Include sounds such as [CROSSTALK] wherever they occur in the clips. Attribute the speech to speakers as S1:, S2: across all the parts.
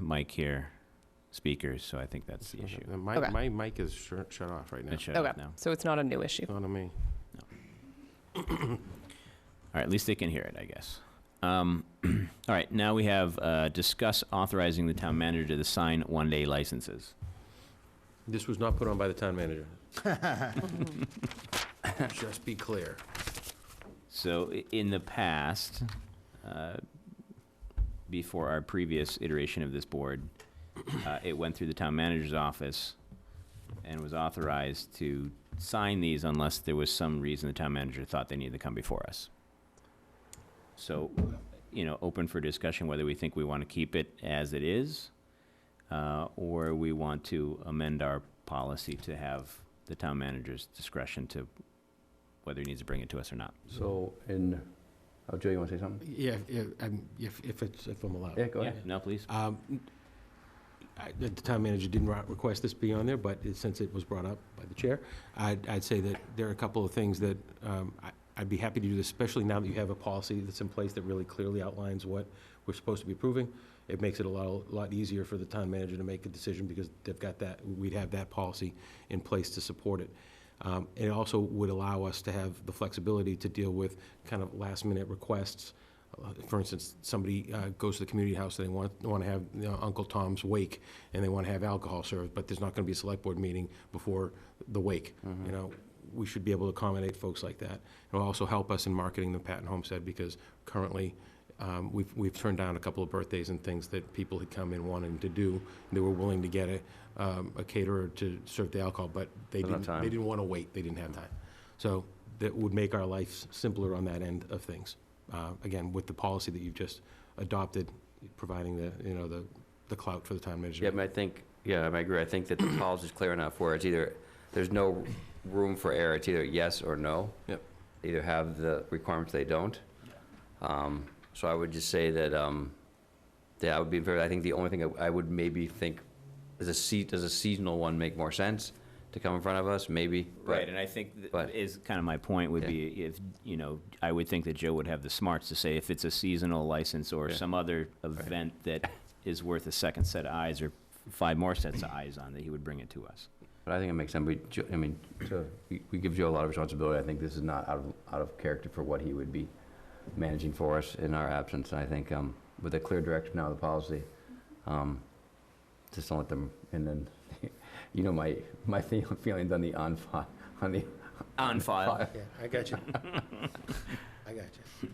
S1: mic here, speakers, so I think that's the issue.
S2: Uh, My,
S3: Okay.
S2: my mic is shut, shut off right now.
S1: It shut
S3: Okay,
S1: off now.
S3: so it's not a
S4: [LAUGHS]
S3: new issue.
S2: Not on me.
S1: All right, at least they can hear it, I guess. Um, [CLEARS THROAT] all right, now we have uh, discuss authorizing the town manager to sign one-day licenses.
S4: This was not put on by the town [LAUGHS] manager. Just be clear.
S1: So i- in the past, uh, before our previous iteration of this board, uh, it went through the town manager's office and was authorized to sign these unless there was some reason the town manager thought they needed to come before us. So, you know, open for discussion whether we think we want to keep it as it is, uh, or we want to amend our policy to have the town manager's discretion to whether he needs to bring it to us or not.
S5: So in, oh, Joe, you want to say something?
S4: Yeah, yeah, I'm- if, if it's, if I'm allowed.
S5: Yeah, go ahead.
S1: No, please.
S4: Um, I- The town manager didn't ri- request this be on there, but it- since it was brought up by the chair, I'd, I'd say that there are a couple of things that um, I- I'd be happy to do this, especially now that you have a policy that's in place that really clearly outlines what we're supposed to be approving. It makes it a lot, lot easier for the town manager to make a decision because they've got that, we'd have that policy in place to support it. Um, It also would allow us to have the flexibility to deal with kind of last-minute requests uh, for instance, somebody uh, goes to the community house and they want, want to have you know, Uncle Tom's wake, and they want to have alcohol served, but there's not going to be a select board meeting before the wake,
S5: Mm-hmm.
S4: you know? We should be able to accommodate folks like that. It'll also help us in marketing the Patton Homestead, because currently, um, we've, we've turned down a couple of birthdays and things that people had come in wanting to do. They were willing to get a, um, a caterer to serve the alcohol, but they
S5: Not enough
S4: didn't,
S5: time.
S4: they didn't want to wait, they didn't have time. So that would make our lives simpler on that end of things. Uh, Again, with the policy that you've just adopted, providing the, you know, the the clout for the town manager.
S5: Yeah, I mean, I think, yeah, I mean, I agree. I think that the policy's clear enough where it's either, there's no room for error. It's either yes or no.
S4: Yep.
S5: Either have the requirements, they don't. Um, So I would just say that, um, yeah, I would be in favor. I think the only thing I- I would maybe think, is a sea, does a seasonal one make more sense to come in front of us? Maybe. but-
S1: Right, and I think th-
S5: but-
S1: is kind of my point would
S5: Yeah.
S1: be if, you know, I would think that Joe would have the smarts to say if it's a seasonal license or
S5: Yeah.
S1: some other event that is worth a second set of eyes or five more sets of eyes on, that he would bring it to us.
S5: But I think it makes sense. We, Jo- I mean, to- we- we give Joe a lot of responsibility. I think this is not out of, out of character for what he would be managing for us in our absence. And I think um, with a clear direction now of the policy, um, just don't let them, and [LAUGHS] then, you know, my, my [LAUGHS] fe- feelings on the on fi, on the,
S1: On file.
S4: Yeah, I got you. [LAUGHS] I got you.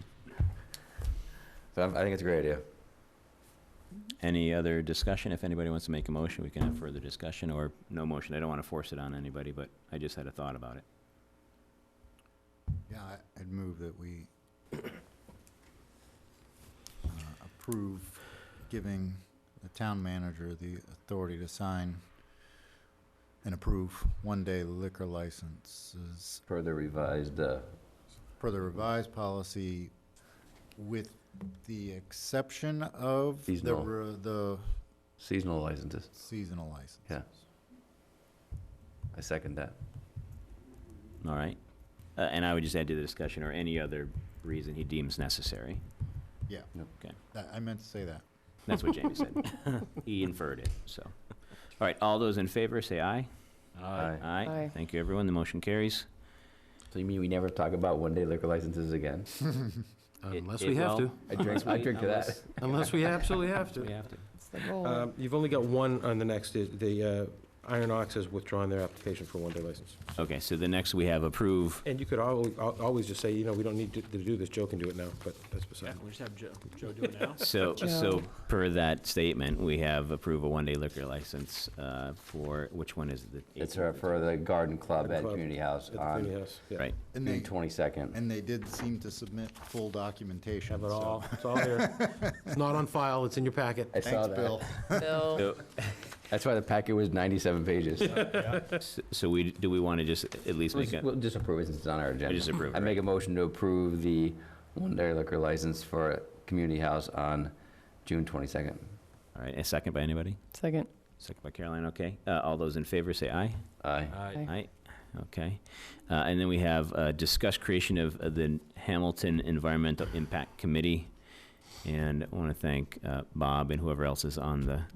S5: so I I think it's a great idea.
S1: Any other discussion? If anybody wants to make a motion, we can have further discussion or no motion. I don't want to force it on anybody, but I just had a thought about it.
S6: Yeah, I- I'd move that we uh, approve giving the town manager the authority to sign and approve one-day liquor licenses
S5: Further revised, uh,
S6: per the revised policy with the exception of the,
S5: Seasonal.
S6: re- the
S5: seasonal licenses.
S6: seasonal license.
S5: Yeah. I second that.
S1: All right? Uh, And I would just add to the discussion or any other reason he deems necessary.
S6: That- I meant to say that.
S1: That's what Jamie said. [LAUGHS] He inferred it, so. All right, all those in favor, say aye.
S5: Aye.
S1: Aye.
S3: Aye.
S1: Thank you, everyone. The motion carries.
S5: So you mean we never talk about one-day liquor licenses again?
S4: Unless
S1: It-
S4: we
S1: it
S4: have
S1: will.
S4: to,
S5: I drink, [LAUGHS] I drink to that.
S1: [LAUGHS] Unless-
S4: unless we absolutely have
S1: We
S4: to.
S1: have to.
S3: It's the
S4: [LAUGHS]
S3: goal.
S4: Um, [LAUGHS] You've only got one on the next, is- the uh, Iron Ox has withdrawn their application for a one-day license.
S1: Okay, so the next we have approve.
S4: And you could always, always just say, you know, we don't need to to do this, Joe can do it now, but that's beside.
S7: We'll just have Joe, Joe do it now.
S1: So,
S3: Joe.
S1: so per that statement, we have approve a one-day liquor license uh, for, which one is it? The
S5: It's uh, for the garden club
S4: Garden
S5: at
S4: Club
S5: Community House
S4: At the
S5: on
S4: community house, yeah.
S1: Right.
S6: And
S5: June
S6: they,
S5: twenty-second.
S6: and they did seem to submit full documentation,
S4: Have it
S6: so-
S4: all, it's all there. It's not on file, it's in your packet.
S5: I saw
S6: Thanks,
S5: that.
S6: Bill.
S3: Bill.
S1: So,
S5: That's why the packet was ninety-seven pages.
S1: so we, do we want to just at least make a,
S5: We'll just approve it since it's on our agenda.
S1: just approve it,
S5: I make a motion to approve the one-day liquor license for Community House on June twenty-second.
S1: all right, a second by anybody?
S3: Second.
S1: Second by Caroline, okay. Uh, All those in favor, say aye.
S5: Aye.
S3: Aye.
S1: Aye, okay. Uh, And then we have uh, discuss creation of uh, the Hamilton Environmental Impact Committee. And I want to thank uh, Bob and whoever else is on the